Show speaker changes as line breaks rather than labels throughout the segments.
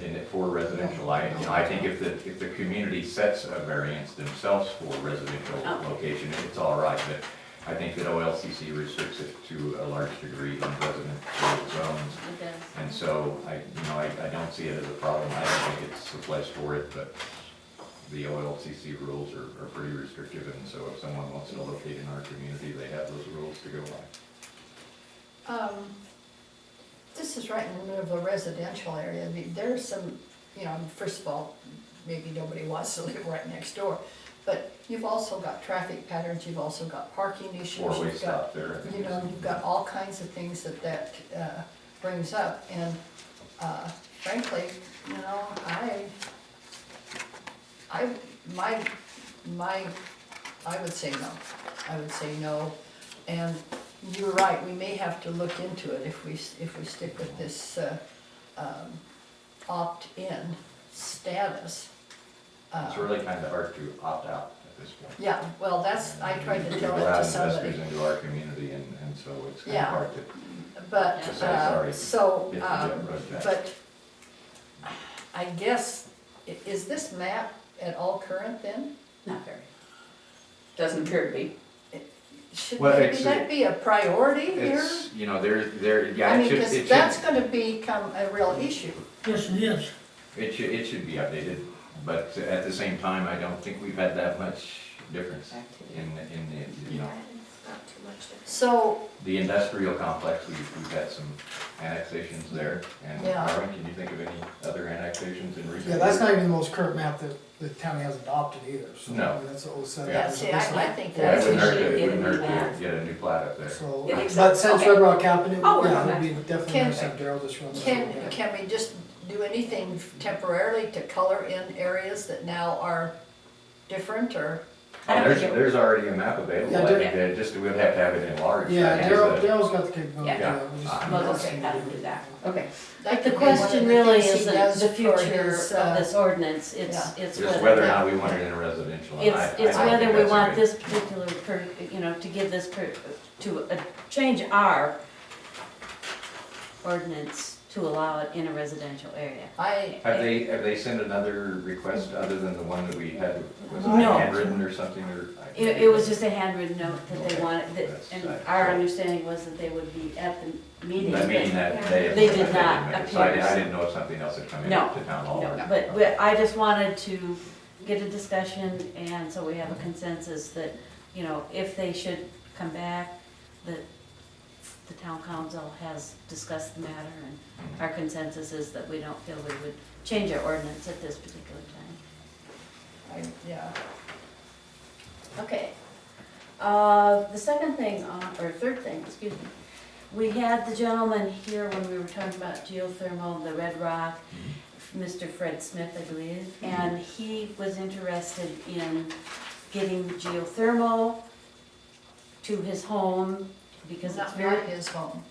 in it for residential. I, you know, I think if the, if the community sets a variance themselves for residential
Oh.
location, it's all right, but I think that OLCC restricts it to a large degree in residential zones.
It does.
And so I, you know, I, I don't see it as a problem. I don't think it's the place for it, but the OLCC rules are, are pretty restrictive. And so if someone wants to locate in our community, they have those rules to go by.
Um, This is right in the middle of a residential area, I mean, there's some, you know, first of all, maybe nobody wants to live right next door, but you've also got traffic patterns, you've also got parking issues.
Four-way
you've got-
stop there. I think
You
is-
know, you've got all kinds of things that that uh, brings up, and uh, frankly, you know, I, I, my, my, I would say no. I would say no, and you're right, we may have to look into it if we, s- if we stick with this uh, um, opt-in status. Uh,
It's really kind of hard to opt out at this point.
Yeah, well, that's, I tried to
We
tell
go
that
out
to
and
somebody,
Investors into our community and, and so it's kind of
Yeah.
hard to
but,
To
say
uh,
sorry
so,
get
um,
the road back.
But I guess, i- is this map at all current then?
Not very. Doesn't appear to be.
Should
Well,
maybe
it's-
that be a priority here?
It's, you know, there, there, yeah,
I
it
mean,
should, it
because
should,
that's gonna become a real issue.
Yes, it is.
it should, it should be updated. But at the same time, I don't think we've had that much difference in, in the, you know,
Not too much different.
So,
the industrial complex, we've, we've had some annexations there. And
Yeah.
Marvin, can you think of any other annexations in recent?
Yeah, that's
years?
not even the most current map that the county has adopted either, so. I
No.
mean, That's a seven.
yeah, see, I, I think
Yeah, it
that's,
wouldn't hurt,
Should
to- it
get a
wouldn't
new
hurt
map.
to get a new plat up there.
So,
You think so?
but since Red
Okay.
Rock Avenue,
I'll work
yeah,
on
it would be definitely
Can-
nice to have Daryl just run. this over
can,
there.
can we just do anything temporarily to color in areas that now are different or?
I
Oh,
don't
there's,
think it-
there's already a map available,
Yeah,
I
there-
think, that just, we'd have to have it enlarged. I
Yeah,
think
Daryl,
it's a-
Daryl's got the capability.
Yeah.
yeah, we just-
Well, let's see, how to do that.
Okay,
that
The
could be one of
question really
things he
isn't
does
the
for
future
his,
of
uh,
this ordinance, it's, it's
Just whether or
whether,
not we want it in a residential. and I-
it's, it's
I don't
whether
think
we
that's a
want
big-
this particular, per- you know, to give this, per- to uh, change our ordinance to allow it in a residential area.
I,
Have they, have they sent another request other than the one that we had, was it
No.
handwritten or something, or? I-
It, it was just a handwritten note that they wanted, that-
That's-
and our understanding was that they would be at the meeting.
I mean, that they.
They did not
So I,
appear.
I didn't know if something else had come in
No,
to town hall. or-
No, but, but I just wanted to get a discussion, and so we have a consensus that, you know, if they should come back, that the town council has discussed the matter, and our consensus is that we don't feel we would change our ordinance at this particular time.
I, yeah.
Okay. Uh, the second thing, on- or third thing, excuse me, we had the gentleman here when we were talking about geothermal, the Red Rock, Mr. Fred Smith, I believe, and he was interested in getting geothermal to his home because it's
Not
very,
not his home.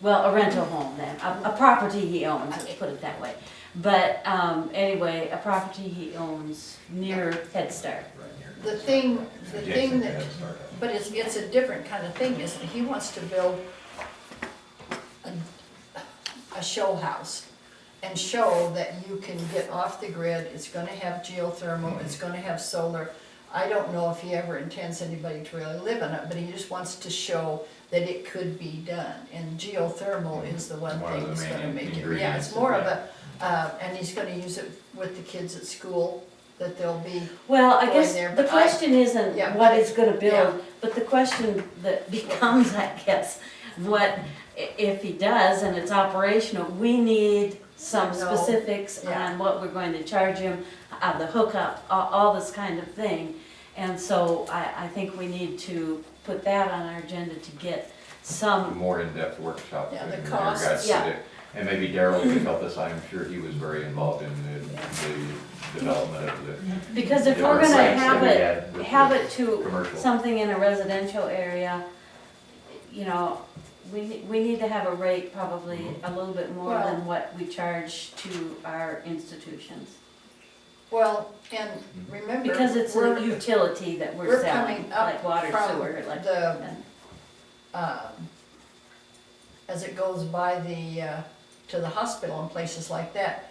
well, a rental home then, a, a property he owns, let's put it that way. But, um, anyway, a property he owns near Head Start.
Right here.
The thing, the thing
Adjacent to
that,
Head Start.
but it's, it's a different kind of thing, isn't it? He wants to build a, a show house and show that you can get off the grid, it's gonna have geothermal, it's gonna have solar. I don't know if he ever intends anybody to really live in it, but he just wants to show that it could be done. And geothermal is the one
One of
thing
the
that's gonna
main
make it, yeah,
ingredients
it's
of
more of a,
that.
uh, and he's gonna use it with the kids at school, that they'll be
Well, I
going
guess
there,
the
but I-
question isn't
Yeah.
what it's gonna
Yeah.
build, but the question that becomes, I guess, what, i- if he does and it's operational, we need some
No.
specifics
Yeah.
on what we're going to charge him, uh, the hookup, all, all this kind of thing. And so I, I think we need to put that on our agenda to get
A
some,
More in-depth workshop.
Yeah,
in
the
regards
costs,
to
yeah.
the- And maybe Daryl could help us, I'm sure he was very involved in the, the development of the
because if
Yeah,
we're
the
gonna
sites
have
that we
it,
had with
have
the
it to
commercial.
something in a residential area, you know, we, ne- we need to have a rate probably a little bit more
Well-
than what we charge to our institutions.
Well, and remember.
Because it's
we're-
a utility that we're
we're
selling,
coming up
like water,
from
sewer, like.
the-
and-
um, As it goes by the, uh, to the hospital and places like that,